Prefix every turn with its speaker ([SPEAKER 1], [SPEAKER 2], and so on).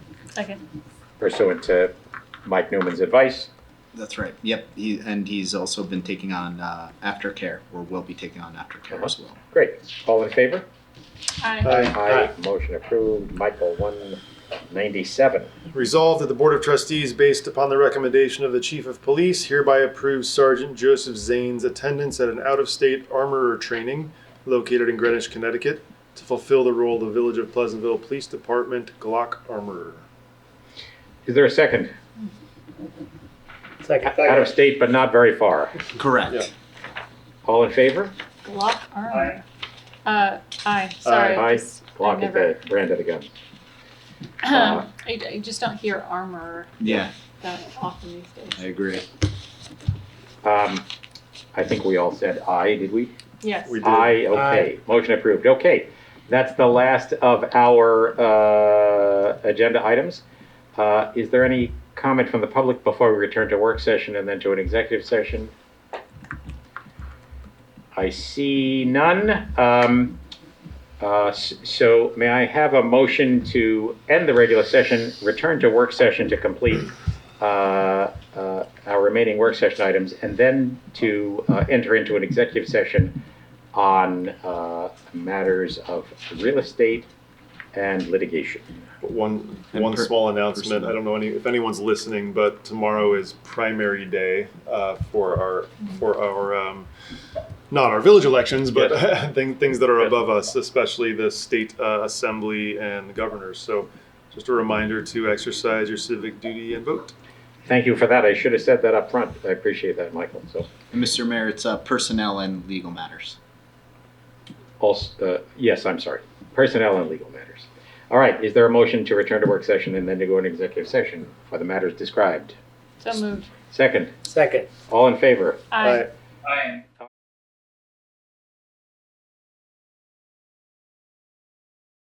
[SPEAKER 1] Second.
[SPEAKER 2] pursuant to Mike Newman's advice.
[SPEAKER 3] That's right. Yep. He, and he's also been taking on uh, aftercare, or will be taking on aftercare as well.
[SPEAKER 2] Great. All in favor?
[SPEAKER 4] Uh,
[SPEAKER 1] Aye.
[SPEAKER 2] Aye. Motion approved. Michael, 197.
[SPEAKER 4] Resolved that the Board of Trustees, based upon the recommendation of the Chief of Police, hereby approves Sergeant Joseph Zane's attendance at an out-of-state armorer training located in Greenwich, Connecticut, to fulfill the role of the Village of Pleasantville Police Department Glock Armorer.
[SPEAKER 2] Is there a second?
[SPEAKER 5] Second.
[SPEAKER 2] Out of state, but not very far.
[SPEAKER 3] Correct.
[SPEAKER 4] Yeah.
[SPEAKER 2] All in favor?
[SPEAKER 1] Block armor. Uh, aye, sorry. I
[SPEAKER 2] Aye.
[SPEAKER 1] just- I
[SPEAKER 2] Block is
[SPEAKER 1] never-
[SPEAKER 2] the brand of the gun.
[SPEAKER 1] I, I just don't hear armor
[SPEAKER 3] Yeah,
[SPEAKER 1] that often these
[SPEAKER 3] I
[SPEAKER 1] days.
[SPEAKER 3] agree.
[SPEAKER 2] Um, I think we all said aye, did we?
[SPEAKER 1] Yes.
[SPEAKER 4] We-
[SPEAKER 2] Aye, okay. Motion approved. Okay. That's the last of our uh, agenda items. Uh, Is there any comment from the public before we return to work session and then to an executive session? I see none. Um, uh, s- So may I have a motion to end the regular session, return to work session to complete uh, uh, our remaining work session items, and then to uh, enter into an executive session on uh, matters of real estate and litigation.
[SPEAKER 4] But One,
[SPEAKER 3] And
[SPEAKER 4] one
[SPEAKER 3] per-
[SPEAKER 4] small announcement,
[SPEAKER 3] personal.
[SPEAKER 4] I don't know any, if anyone's listening, but tomorrow is primary day uh, for our, for our, um, not our village elections, but things, things that are
[SPEAKER 2] Yes.
[SPEAKER 4] above us, especially the state uh, assembly and the governors. So just a reminder to exercise your civic duty and vote.
[SPEAKER 2] Thank you for that. I should have said that up front. I appreciate that, Michael. So,
[SPEAKER 3] And Mr. Mayor, it's uh, personnel and legal matters.
[SPEAKER 2] also, uh, yes, I'm sorry. Personnel and legal matters. All right, is there a motion to return to work session and then to go into executive session for the matters described?
[SPEAKER 1] So moved.
[SPEAKER 2] Second,
[SPEAKER 5] Second.
[SPEAKER 2] all in favor?
[SPEAKER 1] Aye.
[SPEAKER 4] Aye.
[SPEAKER 2] Aye.